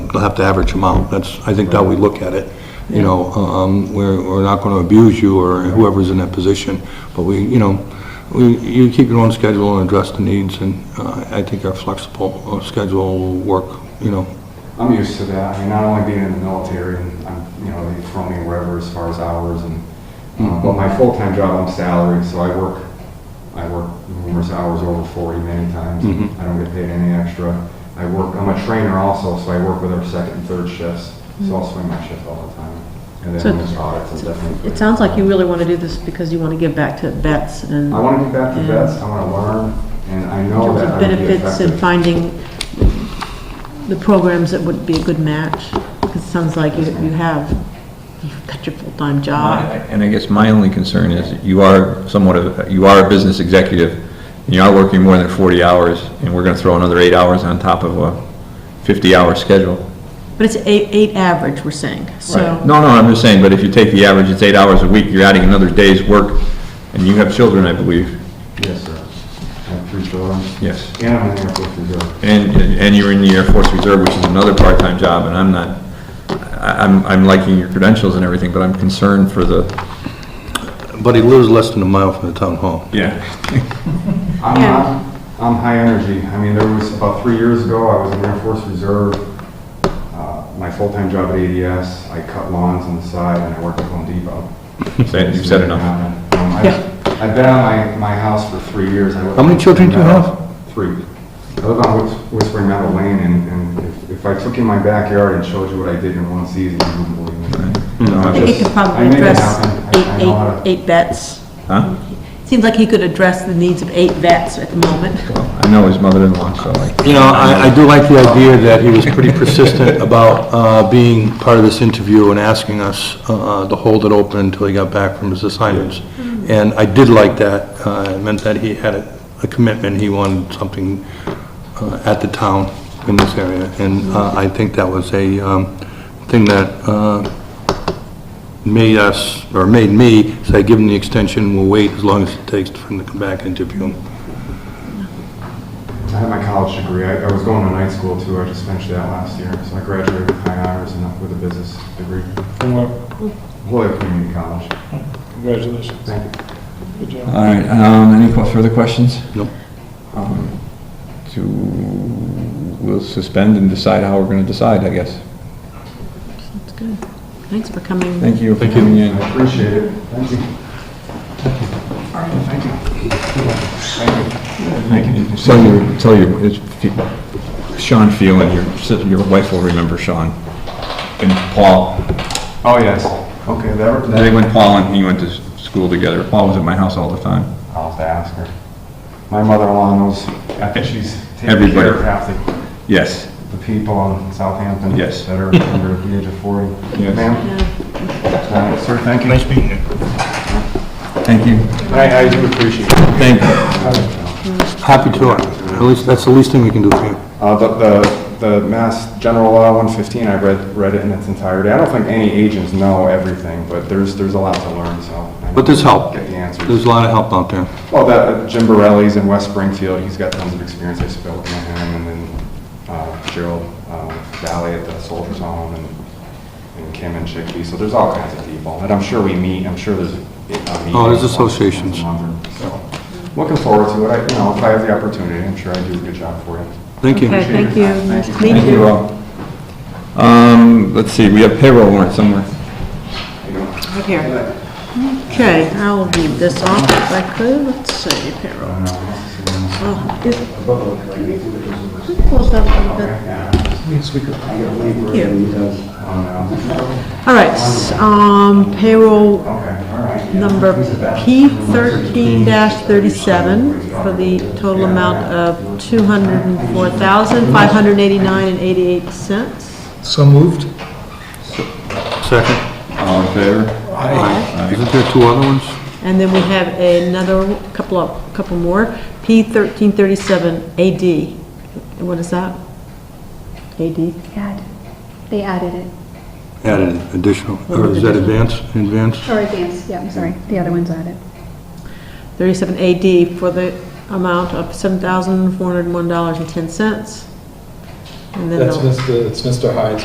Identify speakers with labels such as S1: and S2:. S1: have to average them out. That's, I think, how we look at it. You know, um, we're, we're not going to abuse you or whoever's in that position, but we, you know, we, you keep your own schedule and address the needs, and uh, I think our flexible uh, schedule will work, you know.
S2: I'm used to that. I mean, not only being in the military, and I'm, you know, they throw me wherever as far as hours and, uh, but my full-time job, I'm salaried, so I work, I work numerous hours over 40 many times.
S1: Mhm.
S2: I don't get paid any extra. I work, I'm a trainer also, so I work with our second and third shifts, so I'll swing my shift all the time. And
S3: So
S2: then there's audits and definitely.
S3: It sounds like you really want to do this because you want to give back to vets and
S2: I want to get back to
S3: Yeah.
S2: vets, I want to learn, and I
S3: in
S2: know
S3: terms
S2: that
S3: of
S2: I would be
S3: benefits and
S2: effective.
S3: finding the programs that would be a good match, because it sounds like you you have, you've got your full-time job.
S4: And I guess my only concern is that you are somewhat of, you are a business executive, and you are working more than 40 hours, and we're going to throw another eight hours on top of a 50-hour schedule.
S3: But it's eight, eight average, we're saying, so.
S4: No, no, I'm just saying, but if you take the average, it's eight hours a week, you're adding another day's work, and you have children, I believe,
S2: Yes, sir. I have three children,
S4: yes.
S2: and I'm in the Air Force Reserve.
S4: And, and you're in the Air Force Reserve, which is another part-time job, and I'm not, I- I'm, I'm liking your credentials and everything, but I'm concerned for the.
S1: But he lives less than a mile from the town hall.
S4: Yeah.
S2: I'm
S3: Yeah.
S2: not, I'm high energy. I mean, there was, about three years ago, I was in Air Force Reserve. Uh, My full-time job at ADS, I cut lawns on the side and I worked at Home Depot.
S4: Say- You've said enough.
S2: Um, I- I've been on my, my house for three years. I live
S1: How many
S2: on
S1: children do you
S2: Whispering
S1: have?
S2: Meadow. Three. I live on Whis- Whispering Meadow Lane and, and if- if I took you in my backyard and showed you what I did in one season, you wouldn't believe me. No,
S4: Mm-hmm.
S2: I'm
S3: He
S2: just-
S3: could
S2: I
S3: probably
S2: make it
S3: address
S2: happen. I-
S3: eight,
S2: I know how to-
S3: eight, eight vets.
S4: Huh?
S3: Seems like he could address the needs of eight vets at the moment.
S4: I know his mother-in-law, so I.
S1: You know, I, I do like the idea that he was pretty persistent about uh, being part of this interview and asking us uh, to hold it open until he got back from his assignments. And I did like that. Uh, It meant that he had a a commitment, he wanted something uh, at the town in this area. And uh, I think that was a um, thing that uh, made us, or made me, say, give him the extension, we'll wait as long as it takes for him to come back and interview him.
S2: I had my college degree. I, I was going to night school too. I just finished that last year. So I graduated with high honors and with a business degree.
S5: Well,
S2: Loyola Community College.
S5: Congratulations.
S2: Thank you.
S5: Good job.
S4: All right, um, any que- further questions?
S1: Nope.
S4: Um, To, we'll suspend and decide how we're gonna decide, I guess.
S3: That's good. Thanks for coming.
S4: Thank you for coming in.
S2: I appreciate it. Thank you. All right, thank you. Thank you.
S4: Tell your, tell your, it's- Sean Phelan, your, si- your wife will remember Sean. And Paul,
S2: Oh, yes. Okay, that,
S4: they
S2: that,
S4: went, Paul and he went to s- school together. Paul was at my house all the time.
S2: I'll have to ask her. My mother-in-law knows, I think she's taking
S4: Everybody.
S2: care of half the,
S4: Yes.
S2: the people in Southampton.
S4: Yes.
S2: That are under the age of 40.
S4: Yes.
S2: Ma'am,
S3: Yeah.
S2: uh, sir, thank you.
S4: Thank you.
S2: I, I do appreciate it.
S4: Thank you.
S1: Happy to, at least, that's the least thing we can do for you.
S2: Uh, the, the, the Mass General Law 115, I read, read it in its entirety. I don't think any agents know everything, but there's, there's a lot to learn, so. I
S1: But there's help.
S2: Get the
S1: There's
S2: answers.
S1: a lot of help out there.
S2: Well, that, uh, Jim Borelli's in West Springfield, he's got tons of experience, I spoke with him, and then uh, Gerald uh, Valley at the Soldiers Home, and, and Kim and Chickpea, so there's all kinds of people. And I'm sure we meet, I'm sure there's. uh,
S1: Oh, there's associations.
S2: So, Looking forward to it, I, you know, if I have the opportunity, I'm sure I do a good job for you.
S1: Thank you.
S3: Okay, thank you. Nice to meet
S4: Thank you all. Um, let's see, we have payroll warrant somewhere.
S3: Right here. Okay, I'll leave this off if I could. Let's see, payroll. Oh, it- Could you close that a little bit? Here. All right, s- um, payroll number P thirteen thirty-seven for the total amount of two hundred and four thousand, five hundred and eighty-nine and eighty-eight cents.
S5: So moved?
S1: Second.
S4: All in favor?
S1: Isn't there two other ones?
S3: And then we have another, couple of, couple more, P thirteen thirty-seven AD. What is that? AD?
S6: add, they added it,
S1: Added additional, or is that advance, advance?
S6: or advanced, yeah, I'm sorry, the other one's added.
S3: Thirty-seven AD for the amount of seven thousand four hundred and one dollars and ten cents. And then
S5: That's
S3: the
S5: Mr., it's Mr. Hyde's